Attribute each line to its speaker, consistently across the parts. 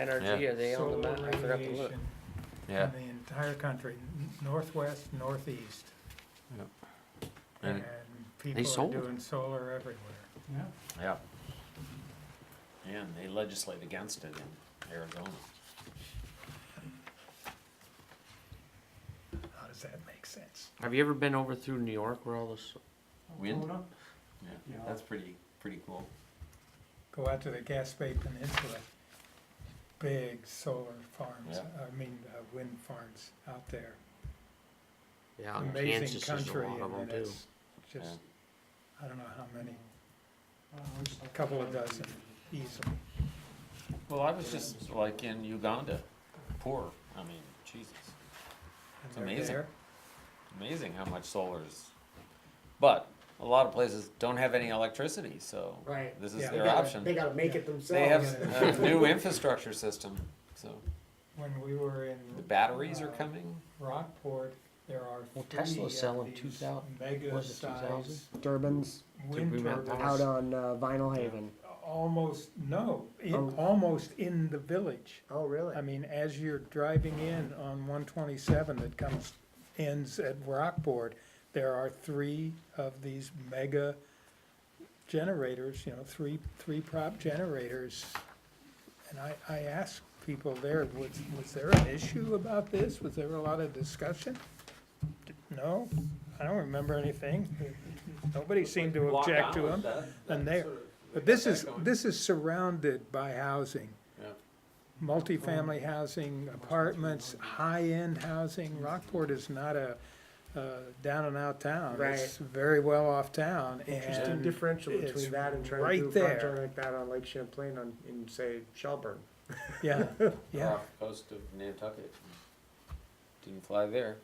Speaker 1: NRG,
Speaker 2: Yeah.
Speaker 1: are they on the
Speaker 3: solar
Speaker 1: map? I forgot to look.
Speaker 3: radiation
Speaker 2: Yeah,
Speaker 3: In the entire country, n- northwest, northeast.
Speaker 2: Yeah.
Speaker 3: And
Speaker 2: And
Speaker 3: people are
Speaker 2: sold.
Speaker 3: doing solar everywhere.
Speaker 4: Yeah.
Speaker 2: yeah.
Speaker 5: And they legislate against it in Arizona.
Speaker 3: How does that make sense?
Speaker 1: Have you ever been over through New York where all this?
Speaker 2: Wind?
Speaker 4: Hold on.
Speaker 2: Yeah,
Speaker 4: Yeah.
Speaker 2: that's pretty, pretty cool.
Speaker 3: Go out to the Gaspe Peninsula, big solar farms,
Speaker 2: Yeah.
Speaker 3: I mean, uh, wind farms out there.
Speaker 1: Yeah, in
Speaker 3: Amazing
Speaker 1: Kansas is a
Speaker 3: country,
Speaker 1: lot of them
Speaker 3: and
Speaker 1: too.
Speaker 3: it's just, I don't know how many,
Speaker 4: Uh, we just like-
Speaker 3: couple of dozen easily.
Speaker 5: Well, I was just like in Uganda, poor, I mean, Jesus,
Speaker 3: And
Speaker 5: It's
Speaker 3: they're
Speaker 5: amazing.
Speaker 3: there.
Speaker 5: amazing how much solar is. But a lot of places don't have any electricity, so
Speaker 6: Right.
Speaker 5: this is
Speaker 3: Yeah.
Speaker 6: They
Speaker 5: their
Speaker 6: gotta- They
Speaker 5: option.
Speaker 6: gotta make it
Speaker 5: They have
Speaker 6: themselves.
Speaker 5: a new infrastructure system, so
Speaker 3: When we were in.
Speaker 5: the batteries are
Speaker 3: uh,
Speaker 5: coming.
Speaker 3: Rockport, there are
Speaker 1: Well,
Speaker 3: three
Speaker 1: Tesla's
Speaker 3: of
Speaker 1: selling
Speaker 3: these
Speaker 1: 2000
Speaker 3: mega
Speaker 1: was it 2000?
Speaker 3: size
Speaker 7: Durbin's
Speaker 3: wind
Speaker 1: we went
Speaker 3: turbines,
Speaker 7: out on uh, Vinyl Haven.
Speaker 3: almost, no, in,
Speaker 7: Oh.
Speaker 3: almost in the village.
Speaker 7: Oh, really?
Speaker 3: I mean, as you're driving in on one twenty-seven that comes, ends at Rockport, there are three of these mega generators, you know, three, three prop generators. And I, I asked people there, was, was there an issue about this? Was there a lot of discussion? No, I don't remember anything. Nobody seemed to object to them. And there, but this is, this is surrounded by housing.
Speaker 2: Yeah.
Speaker 3: Multifamily housing, apartments, high-end housing. Rockport is not a, uh, down and out town.
Speaker 6: Right.
Speaker 3: It's very well off town
Speaker 7: Interesting
Speaker 3: and
Speaker 7: differential
Speaker 3: it's
Speaker 7: between that and trying
Speaker 3: right
Speaker 7: to do a
Speaker 3: there.
Speaker 7: project like that on Lake Champlain on, in say Shelburne.
Speaker 3: Yeah, yeah,
Speaker 5: Off the coast of Nantucket. Didn't fly there.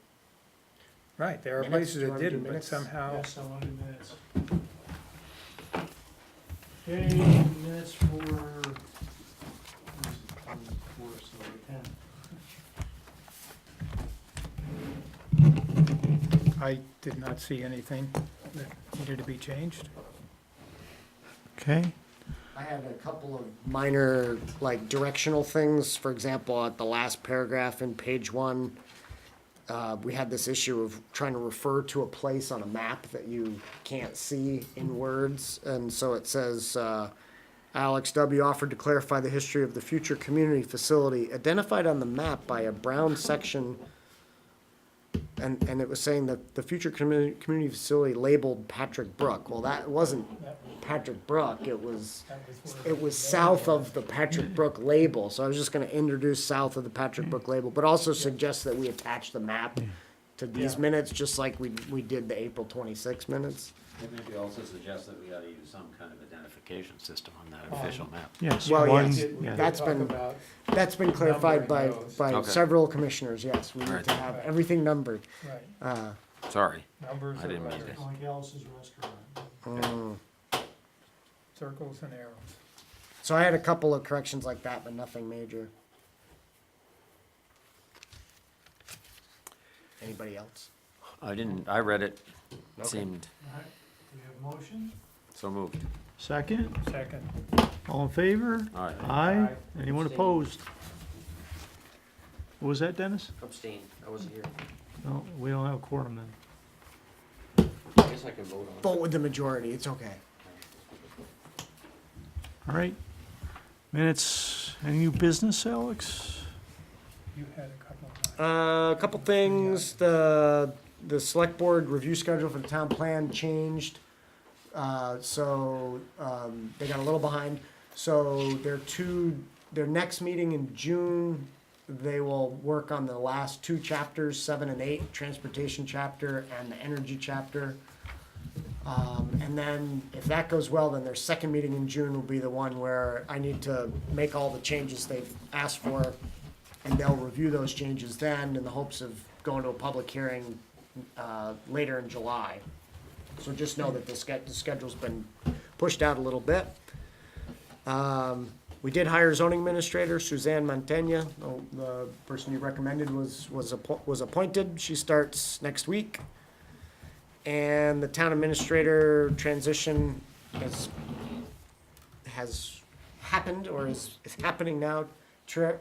Speaker 3: right, there are
Speaker 7: Minutes,
Speaker 3: places
Speaker 7: do you
Speaker 3: that
Speaker 7: wanna do
Speaker 3: didn't, but
Speaker 7: minutes?
Speaker 3: somehow,
Speaker 4: Yes, I want to do minutes. Okay, minutes for, where is it? Twenty-four, so the 10th.
Speaker 3: I did not see anything that needed to be changed.
Speaker 4: Okay.
Speaker 7: I had a couple of minor, like directional things. For example, at the last paragraph in page one, uh, we had this issue of trying to refer to a place on a map that you can't see in words. And so it says, uh, Alex W. offered to clarify the history of the future community facility identified on the map by a brown section. And, and it was saying that the future community, community facility labeled Patrick Brook. Well, that wasn't Patrick Brook. It was it was south of the Patrick Brook label, so I was just gonna introduce south of the Patrick Brook label, but also suggest that we attach the map to these
Speaker 4: Yeah.
Speaker 7: minutes, just like we, we did the April twenty-six minutes.
Speaker 5: Maybe also suggest that we ought to use some kind of identification system on that
Speaker 3: official
Speaker 5: map.
Speaker 4: Yes.
Speaker 7: Well,
Speaker 4: one-
Speaker 7: yes,
Speaker 4: Oh, yeah.
Speaker 7: that's
Speaker 3: Talk
Speaker 7: been,
Speaker 3: about
Speaker 7: that's been clarified by,
Speaker 3: Numbering those.
Speaker 7: by
Speaker 2: Okay.
Speaker 7: several commissioners, yes, we need
Speaker 2: Alright.
Speaker 7: to have everything numbered.
Speaker 3: Right,
Speaker 7: Uh,
Speaker 2: Sorry.
Speaker 3: numbers
Speaker 2: I
Speaker 3: of uh,
Speaker 2: didn't mean
Speaker 3: letters,
Speaker 4: Like Alice's restaurant.
Speaker 7: mm.
Speaker 3: circles and arrows.
Speaker 7: So I had a couple of corrections like that, but nothing major. Anybody else?
Speaker 2: I didn't, I read it,
Speaker 7: Okay.
Speaker 2: seemed
Speaker 4: All right, we have motion?
Speaker 2: so moved.
Speaker 4: Second,
Speaker 3: Second,
Speaker 4: all in favor?
Speaker 2: All right.
Speaker 4: Aye. Anyone
Speaker 1: Anyone
Speaker 4: opposed?
Speaker 1: opposed?
Speaker 4: What was that, Dennis?
Speaker 1: Abstain, I wasn't here.
Speaker 4: No, we don't have a quorum then.
Speaker 1: I guess I can vote on
Speaker 7: Vote with the majority, it's okay.
Speaker 4: All right. Minutes, any new business, Alex?
Speaker 3: you had a couple of.
Speaker 7: Uh, a couple things, the, the select board review schedule for the town plan changed. Uh, so, um, they got a little behind, so their two, their next meeting in June, they will work on the last two chapters, seven and eight, transportation chapter and the energy chapter. Um, and then if that goes well, then their second meeting in June will be the one where I need to make all the changes they've asked for. And they'll review those changes then in the hopes of going to a public hearing, uh, later in July. So just know that the sched- the schedule's been pushed out a little bit. Um, we did hire zoning administrator Suzanne Montaigne. The, the person you recommended was, was appo- was appointed. She starts next week. And the town administrator transition has, has happened or is, is happening now. tra-